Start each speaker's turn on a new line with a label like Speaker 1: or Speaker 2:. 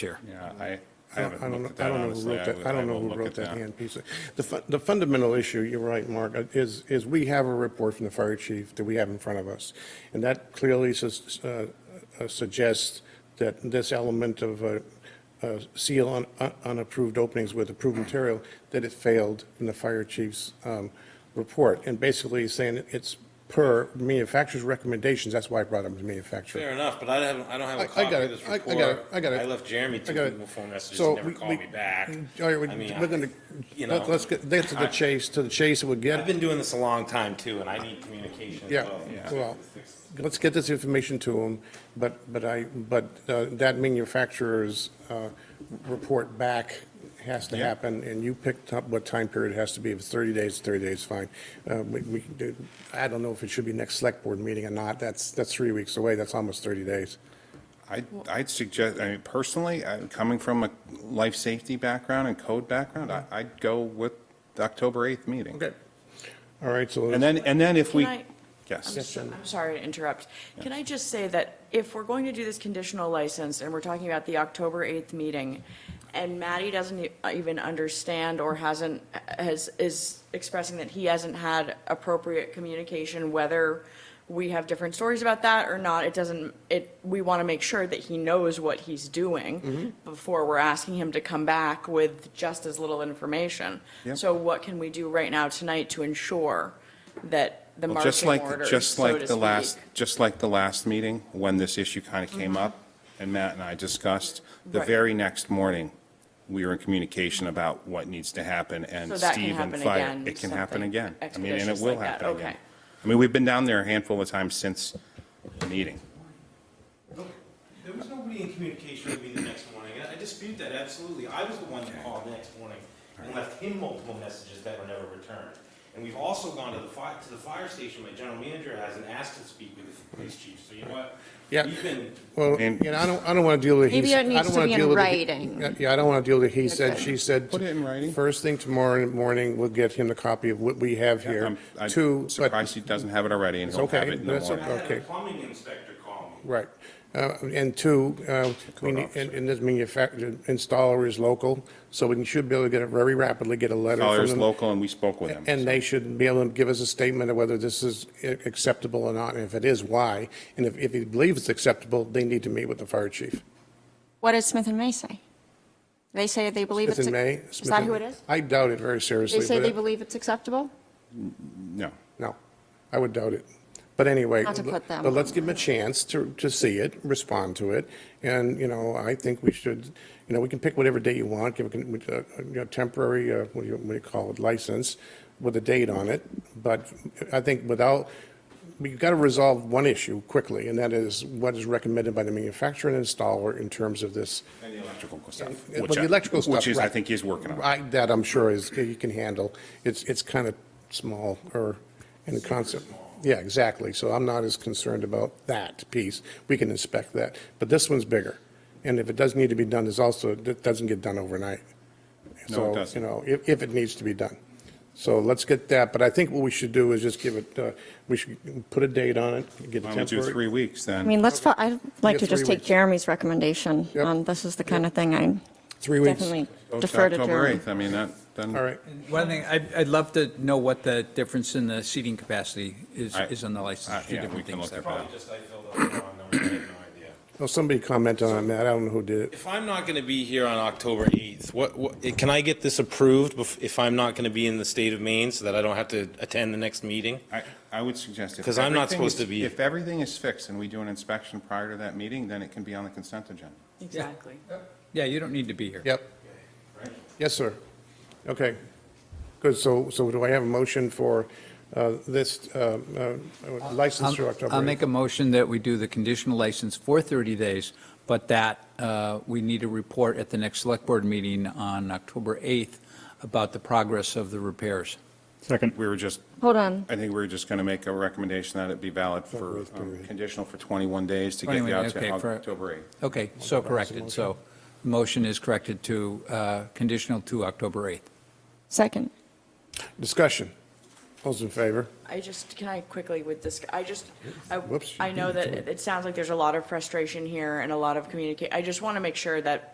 Speaker 1: Chair.
Speaker 2: Yeah, I, I
Speaker 3: I don't
Speaker 2: haven't
Speaker 3: know,
Speaker 2: looked at
Speaker 3: I
Speaker 2: that
Speaker 3: don't know who
Speaker 2: honestly.
Speaker 3: wrote that,
Speaker 2: will-
Speaker 3: I don't know
Speaker 2: will
Speaker 3: who
Speaker 2: look
Speaker 3: wrote
Speaker 2: at
Speaker 3: that hand piece. The fun, the fundamental issue, you're right, Mark, uh, is, is we have a report from the fire chief that we have in front of us. And that clearly sus- uh, uh, suggests that this element of uh, uh, seal on un- unapproved openings with approved material, that it failed in the fire chief's um, report. And basically saying it's per manufacturer's recommendations, that's why I brought up the manufacturer.
Speaker 4: Fair enough, but I haven't, I don't have
Speaker 3: I-
Speaker 4: a
Speaker 3: I
Speaker 4: copy
Speaker 3: got
Speaker 4: of
Speaker 3: it.
Speaker 4: this
Speaker 3: I- I
Speaker 4: report.
Speaker 3: got it. I got it.
Speaker 4: left Jeremy
Speaker 3: I
Speaker 4: two
Speaker 3: got it.
Speaker 4: people phone messages,
Speaker 3: So
Speaker 4: he never
Speaker 3: we-
Speaker 4: called
Speaker 3: we- mm,
Speaker 4: me back.
Speaker 3: All right, we-
Speaker 4: I mean,
Speaker 3: we're gonna,
Speaker 4: I- you know,
Speaker 3: let- let's get, get to the
Speaker 4: I-
Speaker 3: chase, to the chase, we'll
Speaker 4: I've
Speaker 3: get,
Speaker 4: been doing this a long time too, and I need communication as
Speaker 3: Yeah,
Speaker 4: well.
Speaker 3: yeah. well, let's get this information to them, but, but I, but uh, that manufacturer's uh, report back has to happen, and you picked up what time period it has to be, if it's 30 days, 30 days, fine. Uh, We, we can do- I don't know if it should be next select board meeting or not, that's, that's three weeks away, that's almost 30 days.
Speaker 2: I, I'd suggest, I mean, personally, I'm coming from a life safety background and code background, I, I'd go with the October 8th meeting.
Speaker 3: All right, so.
Speaker 2: And then, and then if we,
Speaker 5: Can I-
Speaker 2: yes,
Speaker 5: I'm sorry to interrupt. Can I just say that if we're going to do this conditional license and we're talking about the October 8th meeting, and Matty doesn't e- even understand or hasn't, uh, has, is expressing that he hasn't had appropriate communication, whether we have different stories about that or not, it doesn't, it, we want to make sure that he knows what he's
Speaker 2: Mm-hmm.
Speaker 5: doing before we're asking him to come back with just as little information.
Speaker 2: Yep.
Speaker 5: So what can we do right now tonight to ensure that the
Speaker 2: Well,
Speaker 5: marching
Speaker 2: just like,
Speaker 5: orders,
Speaker 2: just
Speaker 5: so
Speaker 2: like
Speaker 5: to
Speaker 2: the last,
Speaker 5: speak.
Speaker 2: just like the last meeting, when this issue kind of came up, and Matt and I discussed, the
Speaker 5: Mm-hmm. Right.
Speaker 2: very next morning, we were in communication about what needs to happen, and
Speaker 5: So that can
Speaker 2: Steve and
Speaker 5: happen
Speaker 2: Fire.
Speaker 5: again,
Speaker 2: It can happen
Speaker 5: something
Speaker 2: again. I mean, and it
Speaker 5: expeditious
Speaker 2: will
Speaker 5: like that,
Speaker 2: happen again.
Speaker 5: okay.
Speaker 2: I mean, we've been down there a handful of times since the meeting.
Speaker 4: There was nobody in communication with me the next morning, and I dispute that absolutely. I was the one that called the next morning and left him multiple messages that were never returned. And we've also gone to the fire, to the fire station, my general manager has, and asked to speak with the police chief, so you know what?
Speaker 3: Yeah.
Speaker 4: We've been
Speaker 3: Well, you
Speaker 2: And-
Speaker 3: know, I don't, I don't want to deal with.
Speaker 6: Maybe
Speaker 3: he's-
Speaker 6: it needs
Speaker 3: I don't
Speaker 6: to
Speaker 3: wanna
Speaker 6: be in
Speaker 3: deal with the-
Speaker 6: writing.
Speaker 3: Yeah, I don't want to deal with the he said,
Speaker 6: Okay.
Speaker 3: she said.
Speaker 2: Put it in writing.
Speaker 3: First thing tomorrow morning, we'll get him the copy of what we have here.
Speaker 2: I'm I'm
Speaker 3: Two, but,
Speaker 2: surprised he doesn't have it already, and he'll
Speaker 3: It's okay.
Speaker 2: have it in the
Speaker 3: That's
Speaker 2: morning.
Speaker 4: I had
Speaker 3: Okay.
Speaker 4: a plumbing inspector call me.
Speaker 3: right. Uh, And two, uh, we
Speaker 2: Code
Speaker 3: need-
Speaker 2: officer.
Speaker 3: and and this manufacturer, installer is local, so we should be able to get it very rapidly, get a letter from
Speaker 2: Colliers
Speaker 3: them.
Speaker 2: local, and we spoke with him.
Speaker 3: And they should be able to give us a statement of whether this is i- acceptable or not, and if it is, why. And if, if he believes it's acceptable, they need to meet with the fire chief.
Speaker 6: What does Smith and May say? They say they believe
Speaker 3: It's
Speaker 6: it's.
Speaker 3: in May.
Speaker 6: Is
Speaker 3: Smith
Speaker 6: that
Speaker 3: and-
Speaker 6: who it is?
Speaker 3: I doubt it very seriously.
Speaker 6: They say
Speaker 3: but
Speaker 6: they
Speaker 3: it-
Speaker 6: believe it's acceptable?
Speaker 2: No.
Speaker 3: No, I would doubt it. But anyway.
Speaker 6: Not to put them
Speaker 3: But let's
Speaker 6: on
Speaker 3: give them a chance to, to see it, respond to it. And, you know, I think we should, you know, we can pick whatever date you want, give a, uh, you know, temporary, uh, what do you, what do you call it, license with a date on it. But I think without, we've got to resolve one issue quickly, and that is what is recommended by the manufacturer and installer in terms of this.
Speaker 2: And the electrical stuff.
Speaker 3: Well,
Speaker 2: which
Speaker 3: the
Speaker 2: I-
Speaker 3: electrical stuff.
Speaker 2: Which is, I
Speaker 3: right.
Speaker 2: think he's working on.
Speaker 3: I, that I'm sure is, he can handle. It's, it's kind of small or in concept. Yeah, exactly. So I'm not as concerned about that piece. We can inspect that. But this one's bigger. And if it does need to be done, there's also, it doesn't get done overnight.
Speaker 2: No, it
Speaker 3: So,
Speaker 2: doesn't.
Speaker 3: You know, if, if it needs to be done. So let's get that. But I think what we should do is just give it, uh, we should put a date on it, get
Speaker 2: Why
Speaker 3: a
Speaker 2: don't we do
Speaker 3: temporary.
Speaker 2: three weeks
Speaker 6: I
Speaker 2: then?
Speaker 6: mean, let's, fo- I'd like to
Speaker 3: Yeah,
Speaker 6: just
Speaker 3: three
Speaker 6: take
Speaker 3: weeks.
Speaker 6: Jeremy's recommendation
Speaker 3: Yep.
Speaker 6: on, this is the kind of thing I
Speaker 3: Three weeks.
Speaker 6: definitely
Speaker 2: Go to
Speaker 6: defer to
Speaker 2: October
Speaker 6: Jeremy.
Speaker 2: 8th, I mean, that, then.
Speaker 3: All right.
Speaker 7: One thing, I'd, I'd love to know what the difference in the seating capacity is,
Speaker 2: I-
Speaker 7: is on the
Speaker 2: Uh,
Speaker 7: license. Two
Speaker 2: Yeah, we
Speaker 7: different
Speaker 2: can
Speaker 7: things
Speaker 2: look
Speaker 7: there.
Speaker 2: at that.
Speaker 4: Probably just I filled out the wrong number, I have no idea.
Speaker 3: Well, somebody commented on that. I don't know who did it.
Speaker 4: If I'm not going to be here on October 8th, what, what, can I get this approved bef- if I'm not going to be in the state of Maine so that I don't have to attend the next meeting?
Speaker 2: I, I would suggest. if
Speaker 4: 'Cause I'm not
Speaker 2: everything
Speaker 4: supposed
Speaker 2: is-
Speaker 4: to be-
Speaker 2: If everything is fixed and we do an inspection prior to that meeting, then it can be on the consent agenda.
Speaker 5: Exactly.
Speaker 7: Yeah, you don't need to be here.
Speaker 3: Yep. Yes, sir. Okay. Good. So, so do I have a motion for uh, this uh, uh, license through
Speaker 7: I'll
Speaker 3: October?
Speaker 7: I'll
Speaker 3: 8th?
Speaker 7: make a motion that we do the conditional license for 30 days, but that uh, we need a report at the next select board meeting on October 8th about the progress of the repairs.
Speaker 2: Second. We were just,
Speaker 6: Hold on.
Speaker 2: I think we were just going to make a recommendation that it be valid for,
Speaker 3: October eighth,
Speaker 2: um,
Speaker 3: period.
Speaker 2: conditional for 21 days to get
Speaker 7: 21,
Speaker 2: you out to
Speaker 7: okay, for-
Speaker 2: October 8th.
Speaker 7: Okay, so corrected, so the motion is corrected to uh, conditional to October 8th.
Speaker 6: Second.
Speaker 3: Discussion. All's in favor?
Speaker 5: I just, can I quickly with this, I just, I,
Speaker 3: Whoops.
Speaker 5: I know that it it sounds like there's a lot of frustration here and a lot of communicate, I just want to make sure that